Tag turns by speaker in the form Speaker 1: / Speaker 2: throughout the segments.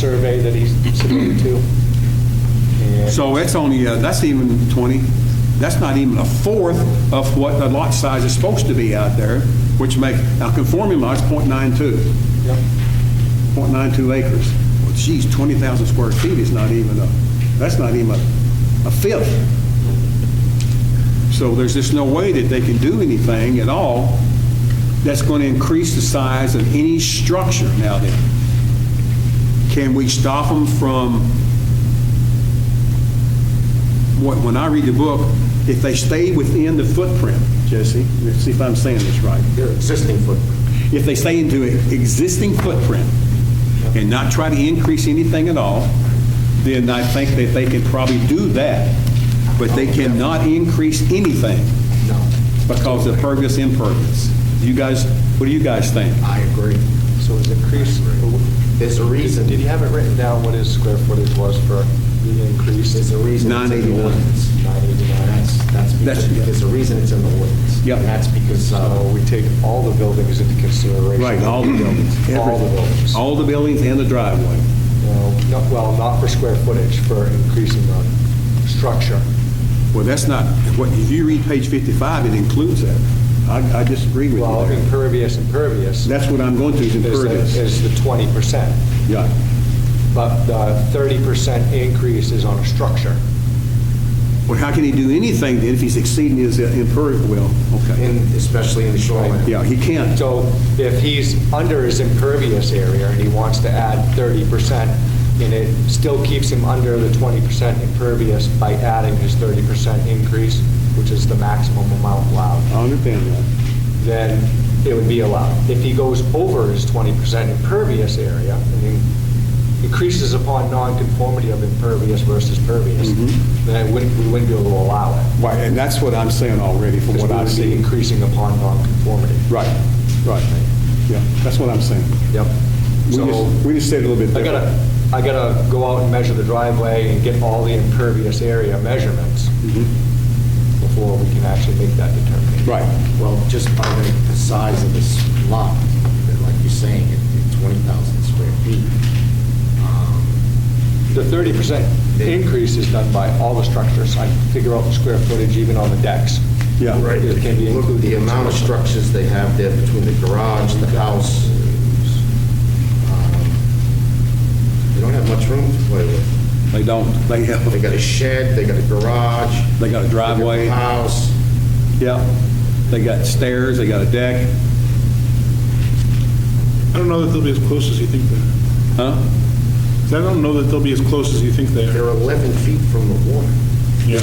Speaker 1: survey that he submitted to. And
Speaker 2: So that's only, uh, that's even 20, that's not even a fourth of what the lot size is supposed to be out there, which make, now conforming lot's .92,
Speaker 1: Yep.
Speaker 2: 0.92 acres. Well, Geez, 20,000 square feet is not even a, that's not even a a fifth. So there's just no way that they can do anything at all that's going to increase the size of any structure now then. Can we stop them from what- when I read the book, if they stay within the footprint, Jesse, let's see if I'm saying this right.
Speaker 3: Your existing footprint.
Speaker 2: If they stay into an existing footprint and not try to increase anything at all, then I think that they can probably do that. But they cannot increase anything
Speaker 3: No,
Speaker 2: because of pervious impervious. You guys, what do you guys think?
Speaker 3: I agree.
Speaker 1: So it's increased.
Speaker 3: There's a reason.
Speaker 1: Did you have it written down what his square footage was for the increase?
Speaker 3: There's a reason. it's in the
Speaker 2: 989.
Speaker 3: ordinance. 989, that's, that's
Speaker 2: That's-
Speaker 3: because, there's a reason it's in the ordinance.
Speaker 2: Yep.
Speaker 3: And that's because,
Speaker 1: So
Speaker 3: uh,
Speaker 1: we take all the buildings into consideration.
Speaker 2: Right, all the buildings.
Speaker 1: All the buildings.
Speaker 2: All the buildings and the driveway.
Speaker 1: No, not- Well, not for square footage, for increasing the structure.
Speaker 2: Well, that's not, what, if you read page 55, it includes that. I I disagree with
Speaker 1: Well,
Speaker 2: you there.
Speaker 1: impervious, impervious
Speaker 2: That's what I'm going to, is
Speaker 1: is the-
Speaker 2: impervious.
Speaker 1: is the 20%.
Speaker 2: Yeah.
Speaker 1: But the 30% increase is on a structure.
Speaker 2: Well, how can he do anything then if he's exceeding his impervious? Well, okay.
Speaker 3: in, especially in the shoreline.
Speaker 2: Yeah, he can't.
Speaker 1: So if he's under his impervious area and he wants to add 30%, and it still keeps him under the 20% impervious by adding his 30% increase, which is the maximum amount allowed,
Speaker 2: I understand that.
Speaker 1: then it would be allowed. If he goes over his 20% impervious area and he increases upon nonconformity of impervious versus pervious,
Speaker 2: Mm-hmm.
Speaker 1: then it wouldn't- we wouldn't be able to allow it.
Speaker 2: Right, and that's what I'm saying already from
Speaker 1: Because
Speaker 2: what
Speaker 1: we
Speaker 2: I've
Speaker 1: would be
Speaker 2: seen.
Speaker 1: increasing upon nonconformity.
Speaker 2: Right, right. Yeah, that's what I'm saying.
Speaker 1: Yep.
Speaker 2: We
Speaker 1: So
Speaker 2: just, we just said it a little bit
Speaker 1: I
Speaker 2: different.
Speaker 1: gotta, I gotta go out and measure the driveway and get all the impervious area measurements
Speaker 2: Mhm.
Speaker 1: before we can actually make that determination.
Speaker 2: Mm-hmm. Right,
Speaker 3: Well, just by the, the size of this lot, that, like you're saying, it- it's 20,000 square feet. Um,
Speaker 1: The thirty percent increase is done by all the structures. I figure out the square footage even on the decks.
Speaker 2: yeah.
Speaker 1: It can be
Speaker 3: Look at
Speaker 1: included.
Speaker 3: the amount of structures they have there between the garage, the house. um, uh, They don't have much room to play with.
Speaker 2: They don't, they
Speaker 3: They
Speaker 2: have,
Speaker 3: got a shed, they got a garage. they
Speaker 2: they got a
Speaker 3: got a
Speaker 2: driveway,
Speaker 3: House.
Speaker 2: yeah. They got stairs, they got a deck,
Speaker 4: I don't know that they'll be as close as you think they are.
Speaker 2: huh?
Speaker 4: 'Cause I don't know that they'll be as close as you think they are.
Speaker 3: They're 11 feet from the water.
Speaker 4: Yeah.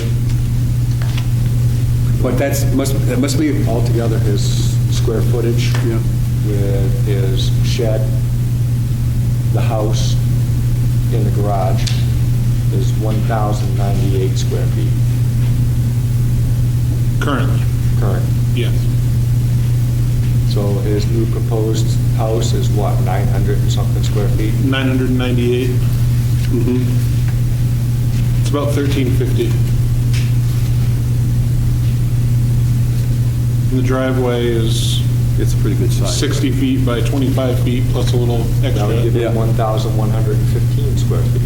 Speaker 2: But that's, must, that must be,
Speaker 1: Altogether, his square footage
Speaker 2: yeah.
Speaker 1: with his shed, the house, and the garage is one thousand ninety-eight square feet
Speaker 4: Currently,
Speaker 1: current.
Speaker 4: yes.
Speaker 1: So his new proposed house is what, 900 and something square feet?
Speaker 4: 998. It's about 1350. And the driveway is
Speaker 2: It's a pretty good size.
Speaker 4: 60 feet by 25 feet plus a little
Speaker 1: That would give
Speaker 4: extra.
Speaker 1: him 1,115 square feet.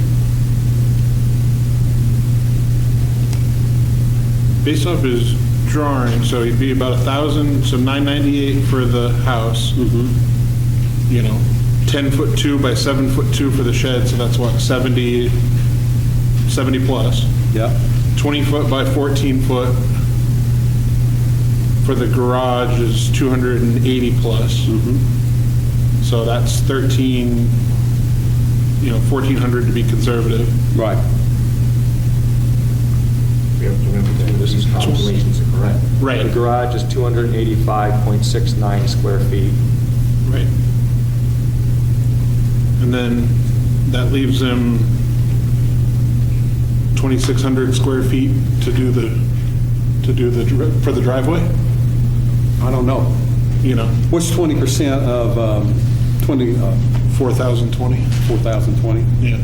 Speaker 4: Based off his drawing, so he'd be about 1,000, so 998 for the house. You know, 10 foot 2 by 7 foot 2 for the shed, so that's what, 70, 70 plus.
Speaker 2: Yeah,
Speaker 4: 20 foot by 14 foot for the garage is 280 plus. So that's 13, you know, 1,400 to be conservative.
Speaker 2: right.
Speaker 3: We have to remember that this is calculations are correct.
Speaker 1: The garage is 285.69 square feet.
Speaker 4: Right. And then that leaves him 2,600 square feet to do the, to do the, dri- for the driveway,
Speaker 2: I don't know.
Speaker 4: you know,
Speaker 2: What's 20% of, um, 20, uh,
Speaker 4: 4,020.
Speaker 2: 4,020?
Speaker 4: Yeah.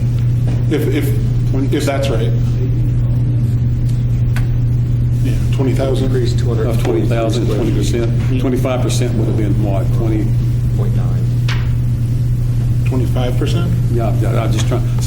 Speaker 4: If, if, if that's right. Yeah, 20,000.
Speaker 1: Increase 200.
Speaker 2: Of 20,000, 20%? 25% would have been what, 20,
Speaker 1: 0.9.
Speaker 4: 25%?
Speaker 2: Yeah, I- I'm just trying,